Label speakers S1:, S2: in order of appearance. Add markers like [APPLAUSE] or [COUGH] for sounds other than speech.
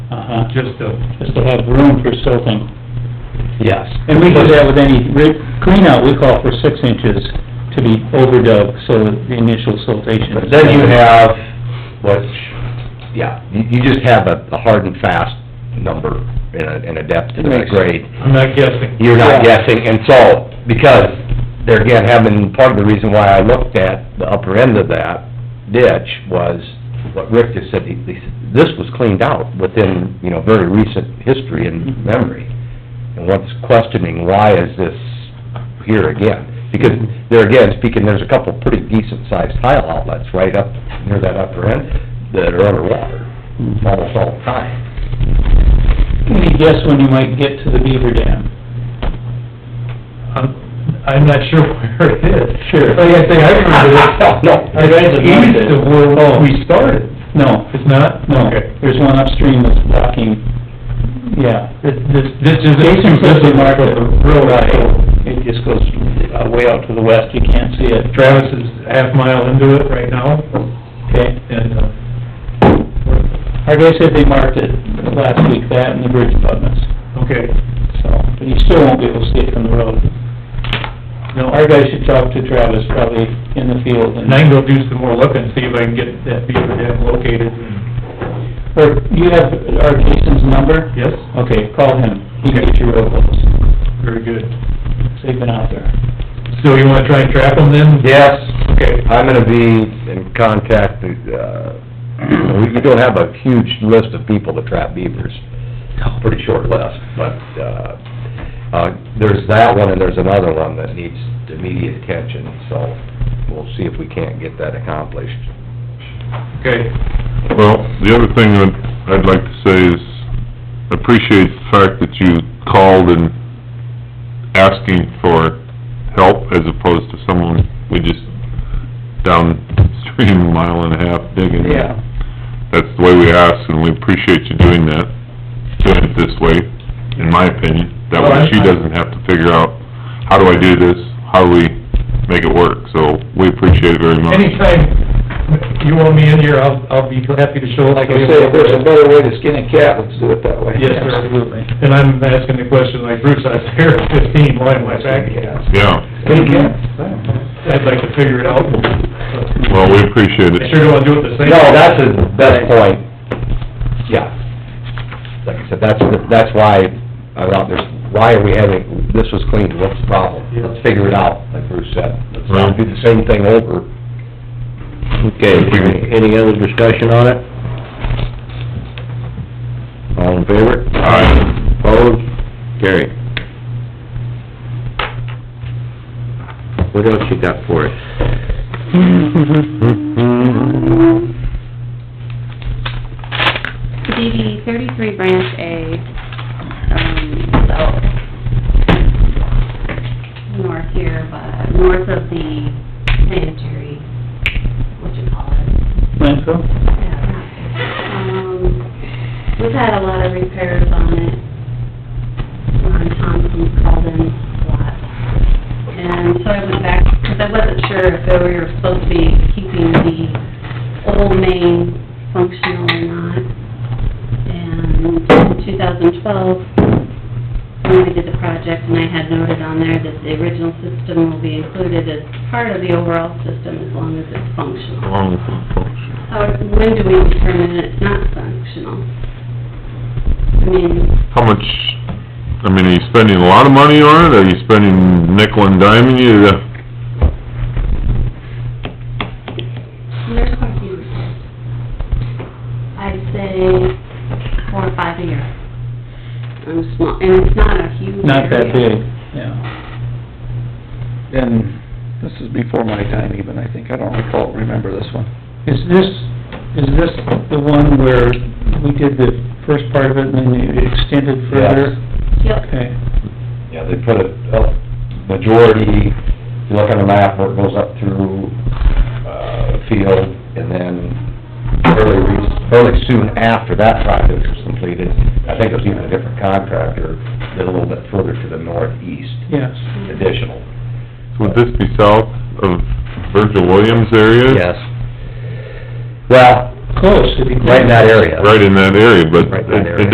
S1: Uh-huh.
S2: just to,
S1: just to have room for silting.
S3: Yes.
S1: And we do that with any re- cleanout, we call for six inches to be overdug, so the initial siltation.
S3: But then you have, which, yeah, you, you just have a a hard and fast number and a, and a depth and a grade.
S2: I'm not guessing.
S3: You're not guessing, and so, because, there again, having, part of the reason why I looked at the upper end of that ditch was what Rick just said, he, he said, this was cleaned out within, you know, very recent history
S2: Mm-hmm.
S3: and memory. And one's questioning, why is this here again? Because, there again, speaking, there's a couple pretty decent-sized tile outlets right up near that upper end that are underwater almost all the time.
S1: Any guess when you might get to the beaver dam?
S2: I'm, I'm not sure [LAUGHS] where it is.
S1: Sure.
S2: Like I
S3: [LAUGHS]
S2: say, I remember this,
S3: No.
S2: I read the east of where we started.
S1: No,
S2: Oh. It's not?
S1: no,
S2: Okay.
S1: there's one upstream that's blocking, yeah.
S2: This, this- this is.
S1: Jason says the mark of the road,
S2: Right.
S1: so it just goes uh, way out to the west, you can't see it.
S2: Travis is half mile into it right now,
S1: Okay,
S2: and, uh,
S1: our guy said they marked it last week, that and the bridge abutments,
S2: okay,
S1: so, but you still won't be able to see it from the road. No, our guy should talk to Travis probably in the field and,
S2: and I can go do some more looking, see if I can get that beaver dam located.
S1: or you have our Jason's number?
S2: Yes,
S1: Okay, call him, he can get your road closed,
S2: very good.
S1: so you've been out there.
S2: So you wanna try and trap them then?
S3: Yes,
S2: Okay,
S3: I'm gonna be in contact, uh, we we don't have a huge list of people that trap beavers. Pretty short list, but, uh, uh, there's that one and there's another one that needs immediate attention, so we'll see if we can't get that accomplished.
S2: okay.
S4: Well, the other thing that I'd like to say is appreciate the fact that you called and asking for help as opposed to someone we just downstream a mile and a half digging. That's the way we ask and we appreciate you doing that, doing it this way, in my opinion. That way she doesn't have to figure out, how do I do this? How do we make it work? So we appreciate it very much.
S2: Anytime you want me in here, I'll, I'll be happy to show up.
S3: better way to skin a cat, let's do it that way.
S2: Yes, sir. absolutely. And I'm asking the question like Bruce, I was here at fifteen, why am I back again?
S4: Yeah.
S2: I'd like to figure it out.
S4: Well, we appreciate it.
S2: I sure don't wanna do it the same.
S3: No, that's the best point, yeah. Like I said, that's, the- that's why, I thought there's, why are we having, this was cleaned, what's the problem? Let's figure it out, like Bruce said. Let's not do the same thing over.
S5: Okay, any other discussion on it? All in favor?
S4: Aye.
S5: Opposed? Carry. What else you got for us? Hmm?
S6: DD thirty-three branch A, um, north here, but north of the sanitary, what you call it.
S1: Landfill?
S6: Um, We've had a lot of repairs on it, on Thompson's called in a lot. And so I went back, because I wasn't sure if we were supposed to be keeping the old main functional or not. And in 2012, when we did the project, and I had noted on there that the original system will be included as part of the overall system as long as it's functional.
S4: Along with the function.
S6: How, when do we determine it's not functional? I mean,
S4: How much, I mean, are you spending a lot of money on it, are you spending nickel and diming Uh, you to,
S6: there's quite a few reasons. I'd say four or five a year. And it's not, and it's not a huge
S1: Not that
S6: area.
S1: big, yeah.
S7: And this is before my time even, I think. I don't recall, remember this one.
S1: Is this, is this the one where we did the first part of it and then you extended further?
S6: Yep.
S1: Okay,
S3: Yeah, they put it, uh, majority, if you look on the map, where it goes up through, uh, field, and then early, re- early soon after that project was completed, I think it was even a different contractor, did a little bit further to the northeast
S1: yes.
S3: additional.
S4: would this be south of Virgil Williams area?
S3: Yes. Well,
S8: close, it'd be close.
S4: right in that area.
S3: right in that area, but
S4: Right in that
S3: it- it
S4: area.